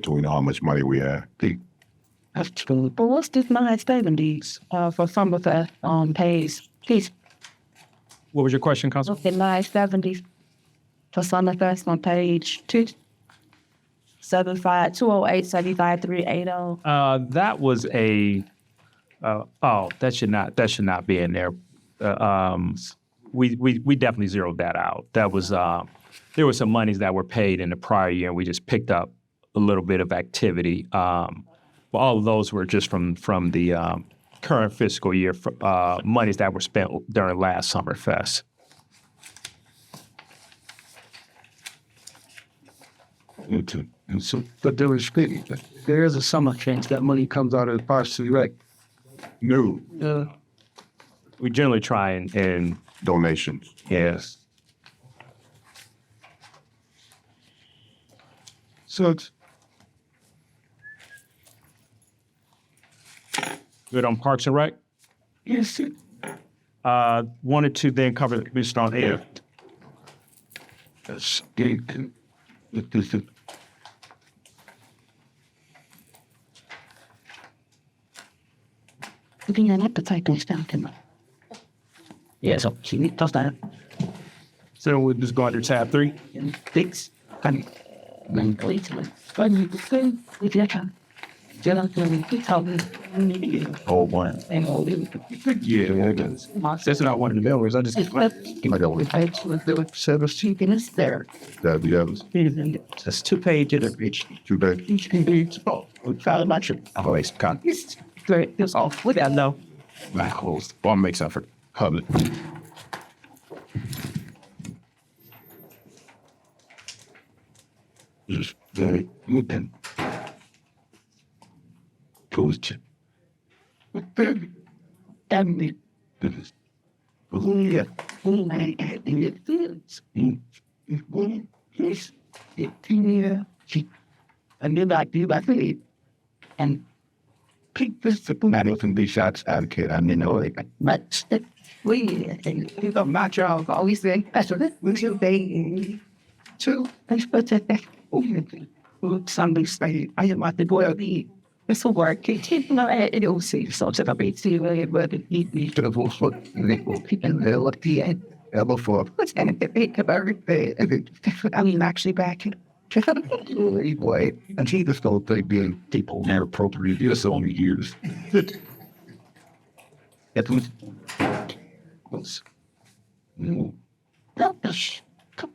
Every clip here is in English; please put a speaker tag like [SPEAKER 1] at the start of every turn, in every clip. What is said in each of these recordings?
[SPEAKER 1] Do we know how much money we have?
[SPEAKER 2] But what's this mind savings uh, for some of the um, pays? Please,
[SPEAKER 3] What was your question, Council?
[SPEAKER 2] look at line 70 for some of us on page 2. 75 208 75 380.
[SPEAKER 3] Uh, that was a, uh, oh, that should not, that should not be in there. Uh, um, we, we, we definitely zeroed that out. That was, uh, there were some monies that were paid in the prior year and we just picked up a little bit of activity. Um, but all of those were just from, from the, um, current fiscal year, fr- uh, monies that were spent during last Summer Fest.
[SPEAKER 4] And so, but there was, there is a summer change. That money comes out of the partially rec.
[SPEAKER 1] New
[SPEAKER 4] Uh,
[SPEAKER 3] We generally try and, and,
[SPEAKER 1] donations.
[SPEAKER 3] yes.
[SPEAKER 4] so it's,
[SPEAKER 3] Good on Parks and Rec?
[SPEAKER 4] yes, it-
[SPEAKER 3] Uh, wanted to then cover, Mr. On Air.
[SPEAKER 4] it's, it- it- it- it-
[SPEAKER 2] Looking at appetite and stuff. Yeah, so she need to start.
[SPEAKER 3] So we'll just go under tab three.
[SPEAKER 2] Thanks. And then completely. But you can see if you can. Just going to tell me.
[SPEAKER 1] Oh, man.
[SPEAKER 2] And all the.
[SPEAKER 1] Yeah, that's
[SPEAKER 4] That's not one of the members. I just.
[SPEAKER 1] I don't-
[SPEAKER 4] Service.
[SPEAKER 2] She can stare.
[SPEAKER 1] that the others.
[SPEAKER 4] That's two pages of each.
[SPEAKER 1] Too bad.
[SPEAKER 2] She can be.
[SPEAKER 4] Oh, we found a bunch of. I've always Oh, got.
[SPEAKER 2] It's great. It's all with that though.
[SPEAKER 4] My host. One makes effort. Hub. Just very moving. Coach.
[SPEAKER 2] Damn it.
[SPEAKER 4] This is. Yeah.
[SPEAKER 2] Oh my God. And it feels. Yes. It feels. She. And then I do my thing. And
[SPEAKER 4] Pick this up. I don't think these shots out of kid. I didn't know they.
[SPEAKER 2] but we and we got my job always saying that's what we should be. So I Oh, suppose that that woman who somebody saying I am at the boy of the it's a work. It no it all seems so that I be too really but it need me.
[SPEAKER 4] Should have also. They will keep in there at the end. Ever for.
[SPEAKER 2] What's that at the big of everything? I mean actually back in
[SPEAKER 4] Anyway, and she just don't think being people inappropriate is on the years. It was. was- No.
[SPEAKER 2] No, gosh. Come.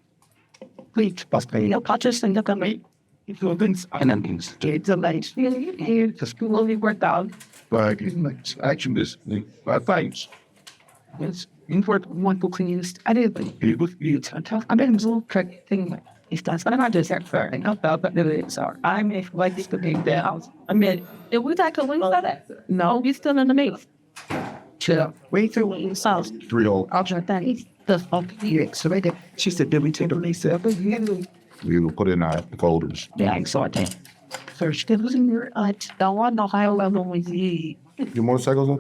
[SPEAKER 2] Please, pass me. No, Patrick, send it to me. If you're going to
[SPEAKER 4] And then it's
[SPEAKER 2] get the lights, here, the school will be worked out.
[SPEAKER 4] like, it's action is, I think,
[SPEAKER 2] Yes, in work one book and used. I did like
[SPEAKER 4] it was,
[SPEAKER 2] it's
[SPEAKER 4] it's,
[SPEAKER 2] a tough. I didn't do correct thing. like, It's that's what I just said for and not about but the it's are. I may like this to be the house. I mean, did we tackle wings like that? No, we still in the mix. Chill. Way through wings house.
[SPEAKER 1] Three oh.
[SPEAKER 2] I'll try that. It's the fuck you so right there. She said, "Did we take the lease up?"
[SPEAKER 1] We will put in our folders.
[SPEAKER 2] Yeah, I saw that. First, it was in your uh, the one the high level with you.
[SPEAKER 1] Your motorcycles on?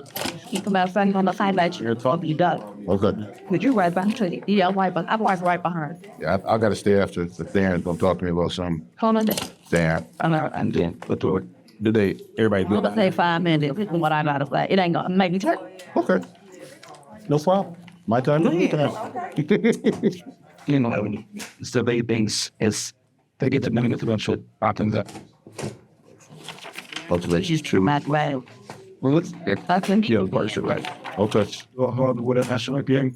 [SPEAKER 2] Keep my friend on the side like you're talking. You done.
[SPEAKER 1] Okay.
[SPEAKER 2] Would you right back to the yeah, right, but I'm right behind.
[SPEAKER 1] Yeah, I, I gotta stay after the Darren's gonna talk to me about something.
[SPEAKER 2] Hold on. there.
[SPEAKER 1] Darren.
[SPEAKER 2] I'm all right.
[SPEAKER 4] and then, but do it. Did they, everybody
[SPEAKER 2] I'm gonna say five minutes. This is what I gotta say. It ain't gonna make me turn.
[SPEAKER 1] Okay. No problem. My time.
[SPEAKER 4] you know, survey things is, they get the money with the bunch of, often that.
[SPEAKER 2] Which is true, Matt. Well,
[SPEAKER 4] Well, let's,
[SPEAKER 2] I can be.
[SPEAKER 4] yeah, of course, you're right.
[SPEAKER 1] Okay.
[SPEAKER 4] Whatever, I should be.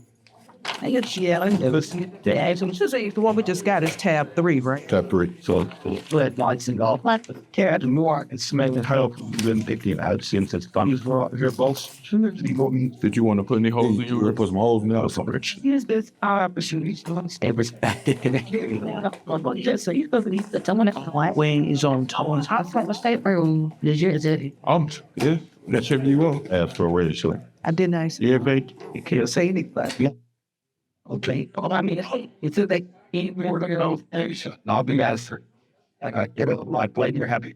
[SPEAKER 2] I get yelling. Yeah, so it's just like the one we just got is tab three, right?
[SPEAKER 1] Tab three.
[SPEAKER 4] So,
[SPEAKER 2] Red lights and all. What?
[SPEAKER 4] Yeah, the more it's smelling help than fifteen out since it's done for your boss. Did you want to put any holes in your? Put some holes in that coverage.
[SPEAKER 2] Here's this our opportunity to understand perspective. Just so you go to the someone else. White wing is on top. I thought the state room. Did you? Is it?
[SPEAKER 4] Um, yeah, that's if you want.
[SPEAKER 1] Ask for a raise, sure.
[SPEAKER 2] I did nice.
[SPEAKER 4] Yeah, babe.
[SPEAKER 2] You can't say anything. Yeah. Okay. All I mean, it's a they.
[SPEAKER 4] We're looking at those things. I'll be answered. I got get it, like, blame you're happy.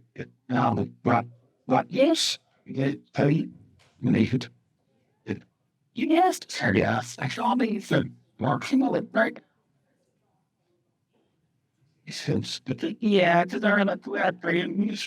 [SPEAKER 4] Um, but, but yes, yeah, pay, need.
[SPEAKER 2] You asked.
[SPEAKER 4] Yes, I saw me, said, Mark, you know, it, right? since, yeah, because they're in a flat, they